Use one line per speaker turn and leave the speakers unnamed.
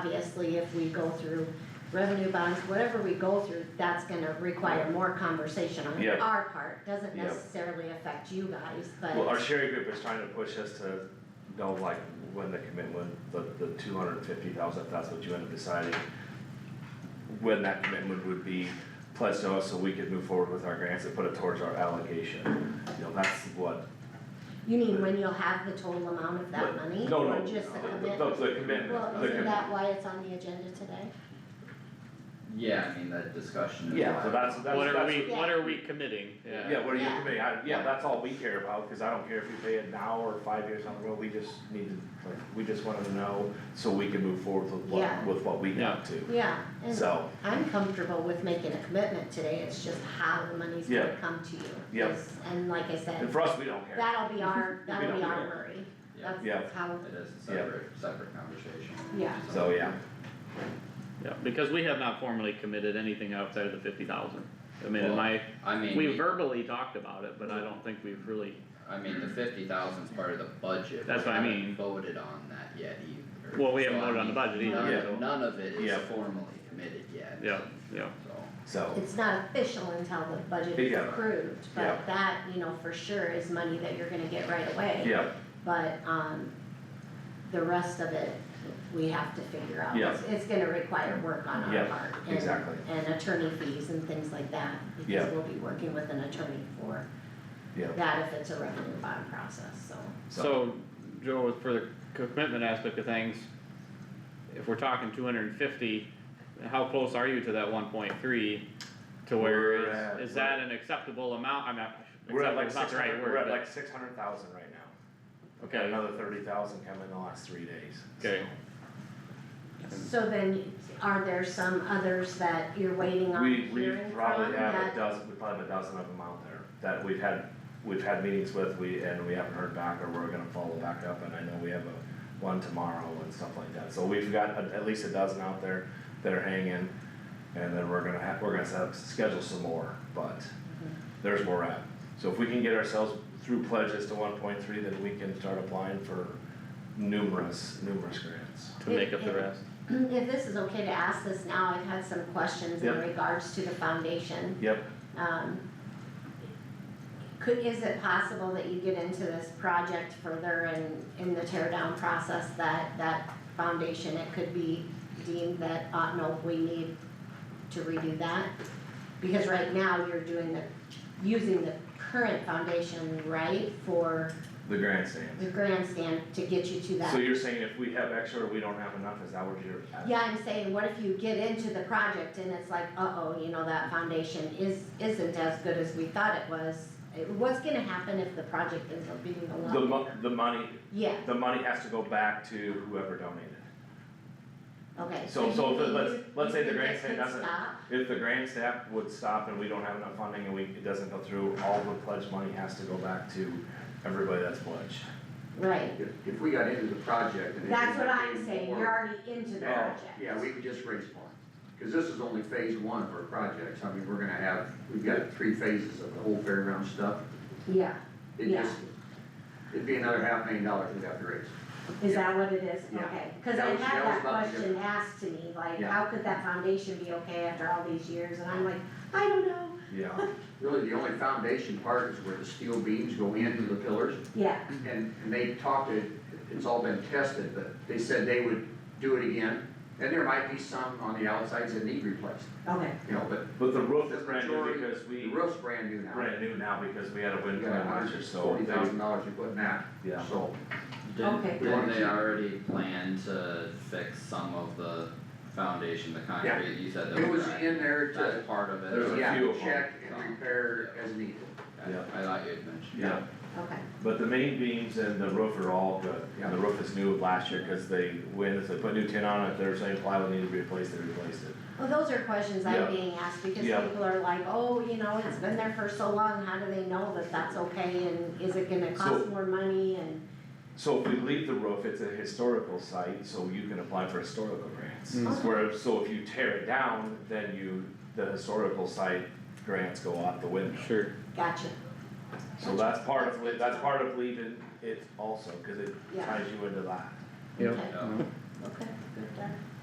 obviously, if we go through revenue bonds, whatever we go through, that's gonna require more conversation on
Yeah.
our part. Doesn't
Yeah.
necessarily affect you guys,
Well, our
but,
sharing group is trying to push us to know like when the commitment, the, the two hundred and fifty thousand, if that's what you end up deciding. When that commitment would be pledged to us so we could move forward with our grants and put it towards our allocation, you know, that's what.
you mean when you'll have the total amount of that money?
No, no,
Or just the
the,
commitment?
the- the commitment,
Well,
the
isn't
com-
that why it's on the agenda today?
Yeah, I mean, that discussion is.
Yeah, so
why-
that's, that's,
What are
that's,
we,
Yeah.
what are we committing, yeah.
yeah, what are you
Yeah.
committing, I, yeah, that's all we care about, cause I don't care if you pay it now or five years down the road, we just need to, like, we just wanted to know. So we can move forward with
Yeah.
what, with what we
Yeah.
got to,
Yeah, and
so.
I'm comfortable with making a commitment today, it's just how the money's gonna
Yeah.
come to you.
Yeah.
Yes, And like I
And
said,
for us, we don't care.
that'll be our, that'll be
don't
our
care.
worry,
Yeah,
Yeah.
that's how,
it is a separate, separate conversation.
Yeah.
So, yeah.
Yeah, because we have not formally committed anything outside of the fifty thousand. I mean, in my,
I mean.
we verbally talked about it, but I don't think we've really,
I mean, the fifty thousand's part of the budget.
That's what I
We haven't
mean.
Voted on that yet either.
well, we
So,
haven't
I
voted on the
mean,
budget
Yeah.
either,
None,
so,
none of it
Yeah.
is formally committed yet.
yeah, yeah.
So,
So,
it's not official until the budget is
Yeah.
approved,
Yeah.
but that, you know, for sure is money that you're gonna get right away.
yeah,
But, um, the rest of it, we have to figure out,
Yeah.
it's, it's gonna require work on our
Yeah,
part. and-
exactly.
And attorney fees and things like that,
Yeah.
because we'll be working with an attorney for
yeah.
that if it's a revenue bond process, so.
So, Joe, for the commitment aspect of things, if we're talking two hundred and fifty, how close are you to that one point three? To
We're
where
at-
is, is that an acceptable amount? I'm not,
We're at
acceptable
like
is not
six
the right
hundred, we're
word,
at
but-
like six hundred thousand right now. Got
okay,
Another thirty thousand come in the last three days.
okay.
So then, are there some others that you're waiting on
We, we
hearing from
probably have a
that?
dozen, we probably have a dozen of them out there that we've had, we've had meetings with, we, and we haven't heard back or we're gonna follow back up and I know we have a one tomorrow and stuff like that. So we've got at, at least a dozen out there that are hanging and then we're gonna have, we're gonna set up, schedule some more, but
Mm-hmm.
there's more at. So if we can get ourselves through pledges to one point three, then we can start applying for numerous, numerous grants.
To make up the rest.
Mm, If this is okay to ask this now, I've had some questions in
Yep.
regards to the foundation.
Yep,
Um, Could, is it possible that you get into this project further in, in the tear down process, that, that foundation, it could be deemed that, uh, no, we need to redo that? Because right now, you're doing the, using the current foundation, right, for
the grandstands.
the grandstand to get you to
So
that?
you're saying if we have extra or we don't have enough, is that what you're asking?
Yeah, I'm saying, what if you get into the project and it's like, uh-oh, you know, that foundation is, isn't as good as we thought it was? It- What's gonna happen if the project ends up being a lot?
The mo- the money,
Yeah,
the money has to go back to whoever donated.
okay.
So- so
you
if it-
think
let's-
you-
let's
you
say the
think it
grandstand
could
doesn't-
stop?
If the grand staff would stop and we don't have enough funding and we, it doesn't go through, all the pledge money has to go back to everybody that's pledged.
Right,
If, if we got into the project and. it
that's what
ended up
I'm
being
saying,
more-
you're already into the
Yeah,
project.
Oh, yeah, we could just raise more, cause this is only phase one of our projects, I mean, we're gonna have, we've got three phases of the whole fairground stuff.
Yeah,
It
Yeah.
just, it'd be another half million dollars we'd have to raise.
is that what it is?
Yeah.
Okay, cause
That
I had
was- that
that
was about the
question asked to me, like,
Yeah.
how could that foundation be okay after all these years? And I'm like, I don't know,
Yeah,
Really, the only foundation part is where the steel beams go into the pillars,
yeah,
and, and they talked it, it's all been tested, but they said they would do it again. And there might be some on the outsides that need replaced,
okay,
you know, but
but the roof is
The
brand new
majority-
because
the
we,
roof's brand new now.
brand new now because we had a
We
wind
got
tunnel last year, so
Forty thousand
they,
dollars you put in that,
yeah.
so.
didn't,
Okay.
didn't they already plan to fix some of the foundation, the concrete, you said that
It was
cracked?
in there to,
That's part of it.
There's a
Okay,
yeah,
few of them.
check and repair as needed.
Yeah.
I thought you had mentioned.
Yeah,
okay.
but the main beams and the roof are all good,
Yeah.
the roof is new of last year, cause they, when, if they put new tin on it, if there's any plywood needed to be replaced, they replaced it.
Well, those are questions
Yeah.
I'm being asked because
Yeah.
people are like, oh, you know, it's been there for so long, how do they know that that's okay and is it gonna cost
So-
more money and,
So if we leave the roof, it's a historical site, so you can apply for historical grants.
Mm.
Okay.
Where, so if you tear it down, then you, the historical site grants go out the window.
Sure.
gotcha,
So that's part of, li- that's part of leaving it also, cause it
Yeah.
ties you into that.
Yep.
okay,
Yeah.
okay, good, done.